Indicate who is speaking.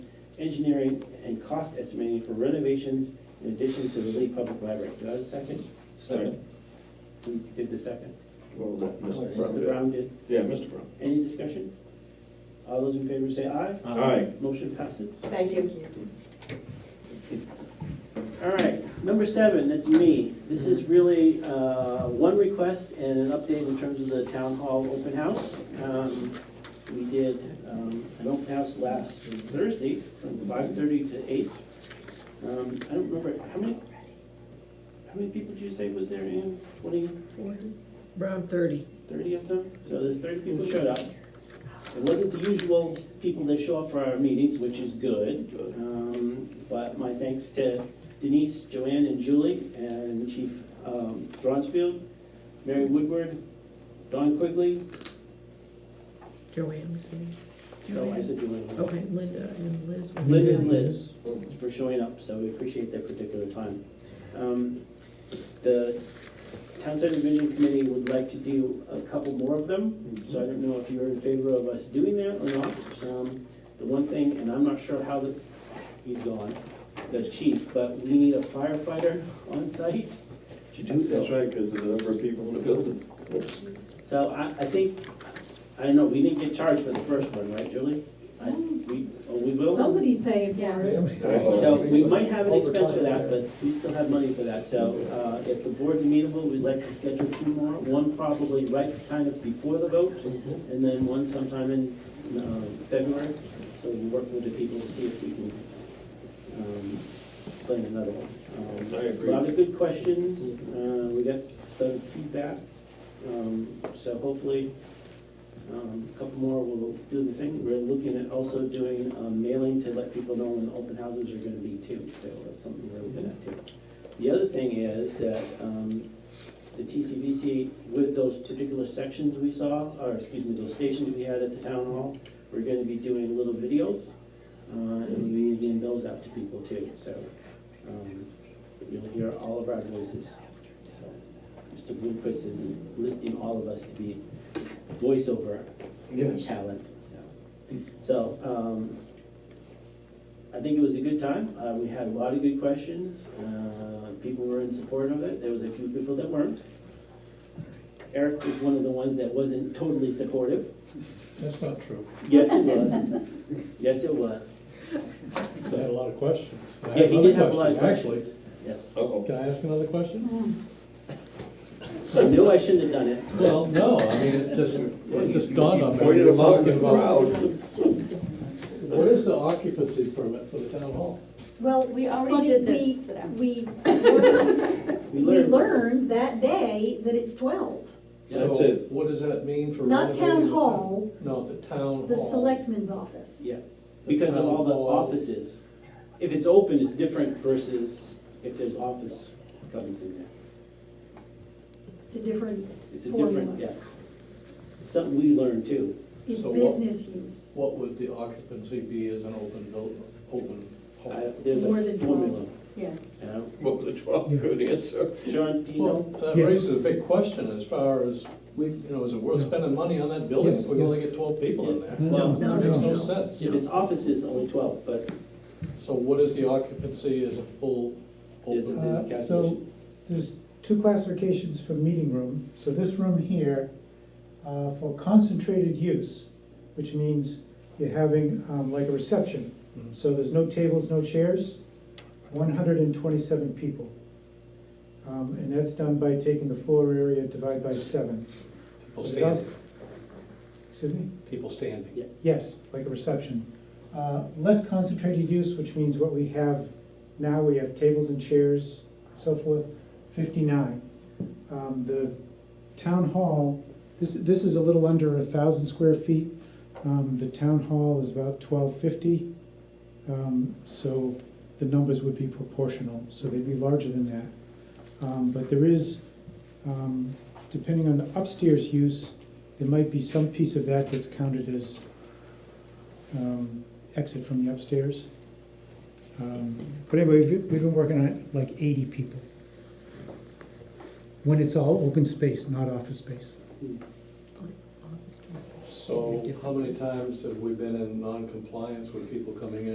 Speaker 1: engineering and cost estimating for renovations in addition to the Lee Public Library. Do I have a second? Sorry,
Speaker 2: Second.
Speaker 1: Who did the second?
Speaker 2: Well, that Mr. Brown
Speaker 1: Mr.
Speaker 2: did.
Speaker 1: Brown did.
Speaker 2: Yeah, Mr. Brown.
Speaker 1: Any discussion? All those in favor say aye.
Speaker 2: Aye.
Speaker 1: Motion passes.
Speaker 3: Thank you.
Speaker 1: All right, number seven, that's me. This is really uh, one request and an update in terms of the town hall open house. Um, We did um, an open house last Thursday from five-thirty to eight. Um, I don't remember, how many, how many people did you say was there, Ann? Twenty?
Speaker 4: Around thirty.
Speaker 1: 30 of them, so there's 30 people showed up. It wasn't the usual people that show up for our meetings, which is good. Um, But my thanks to Denise, Joanne, and Julie, and Chief um, Dronsfield, Mary Woodward, Don Quigley,
Speaker 4: Joanne was here.
Speaker 1: oh, I said Joanne.
Speaker 4: Okay, Linda and Liz. were
Speaker 1: Linda
Speaker 4: here.
Speaker 1: and Liz for showing up, so we appreciate their particular time. Um, The Town Center Vision Committee would like to do a couple more of them,
Speaker 2: Mm-hmm.
Speaker 1: so I don't know if you're in favor of us doing that or not. Um, The one thing, and I'm not sure how the, he's gone, the chief, but we need a firefighter on site.
Speaker 2: Did you do that? That's right, because of the number of people in the building. Oops.
Speaker 1: So I, I think, I don't know, we didn't get charged for the first one, right, Julie? I- We, oh, we will?
Speaker 3: Somebody's paying for it.
Speaker 1: So we might have an expense for that, but we still have money for that, so, uh, if the board's amenable, we'd like to schedule two more, one probably right kind of before the vote, and then one sometime in, um, February, so we'll work with the people to see if we can, um, plan another one. Um,
Speaker 2: I agree.
Speaker 1: A lot of good questions, uh, we got s- some feedback, um, so hopefully, um, a couple more will do the thing. We're looking at also doing um, mailing to let people know when open houses are gonna be too, so that's something we're looking at too. The other thing is that um, the TCVC, with those particular sections we saw, or excuse me, those stations we had at the town hall, we're gonna be doing little videos, uh, and we're getting those out to people too, so um, you'll hear all of our voices. So, Mr. Bloomquist is listing all of us to be voiceover
Speaker 2: Yes.
Speaker 1: talent, so. So, um, I think it was a good time, uh, we had a lot of good questions, uh, people were in support of it, there was a few people that weren't. Eric was one of the ones that wasn't totally supportive,
Speaker 5: That's not true.
Speaker 1: yes, it was, yes, it was,
Speaker 5: I had a lot of questions. I had
Speaker 1: yeah, he did
Speaker 5: another
Speaker 1: have a lot of
Speaker 5: question, actually.
Speaker 1: questions, yes.
Speaker 2: Uh-oh.
Speaker 5: Can I ask another question?
Speaker 1: I knew I shouldn't have done it,
Speaker 5: Well, no, I mean, it just, it just dawned on me.
Speaker 2: Pointed
Speaker 5: We
Speaker 2: him
Speaker 5: were
Speaker 2: out in the
Speaker 5: talking about-
Speaker 2: crowd.
Speaker 5: What is the occupancy permit for the town hall?
Speaker 6: Well, we already,
Speaker 3: did
Speaker 6: we,
Speaker 3: this.
Speaker 6: we,
Speaker 1: we
Speaker 3: We
Speaker 1: learned.
Speaker 3: learned that day that it's twelve,
Speaker 2: That's
Speaker 5: So
Speaker 2: it.
Speaker 5: What does that mean for
Speaker 3: Not
Speaker 5: renovating
Speaker 3: town
Speaker 5: the
Speaker 3: hall,
Speaker 5: No, the town hall.
Speaker 3: the selectman's office.
Speaker 1: Yeah, because of all the offices. If it's open, it's different versus if there's office covers in there.
Speaker 3: It's a different
Speaker 1: It's a different,
Speaker 3: formula.
Speaker 1: yeah. It's Something we learned too.
Speaker 3: It's
Speaker 5: So what-
Speaker 3: business use.
Speaker 5: What would the occupancy be as an open building, open
Speaker 1: I-
Speaker 5: hall?
Speaker 1: There's
Speaker 3: More
Speaker 1: a
Speaker 3: than
Speaker 1: formula.
Speaker 3: Yeah.
Speaker 1: you know?
Speaker 2: What was the twelve? Good answer.
Speaker 1: John, do you
Speaker 5: Well,
Speaker 1: know?
Speaker 5: that
Speaker 4: Yes.
Speaker 5: raises a big question as far as, you know, is it worth spending money on that building if
Speaker 4: Yes,
Speaker 5: we can only
Speaker 4: yes.
Speaker 5: get twelve people in there?
Speaker 1: Well,
Speaker 4: No,
Speaker 5: Makes
Speaker 4: no,
Speaker 5: no
Speaker 4: no.
Speaker 5: sense.
Speaker 1: If it's offices, only twelve, but
Speaker 5: So what is the occupancy as a full
Speaker 1: there's a
Speaker 5: open?
Speaker 1: there's a
Speaker 7: Uh, So,
Speaker 1: calculation.
Speaker 7: there's two classifications for meeting room. So this room here, uh, for concentrated use, which means you're having um, like a reception.
Speaker 5: Mhm.
Speaker 7: So there's no tables, no chairs, one hundred and twenty-seven people. Um, And that's done by taking the floor area divided by seven.
Speaker 5: People
Speaker 7: But it also-
Speaker 5: standing,
Speaker 7: Excuse me?
Speaker 5: people standing.
Speaker 1: Yeah.
Speaker 7: Yes, like a reception. Uh, Less concentrated use, which means what we have now, we have tables and chairs, so forth, fifty-nine. Um, The town hall, this, this is a little under a thousand square feet. Um, The town hall is about twelve fifty. Um, So the numbers would be proportional, so they'd be larger than that. Um, But there is, um, depending on the upstairs use, there might be some piece of that that's counted as um, exit from the upstairs. Um, But anyway, we've been- we've been working on it like 80 people. When it's all open space, not office space.
Speaker 4: Office spaces.
Speaker 5: So how many times have we been in non-compliance with people coming in?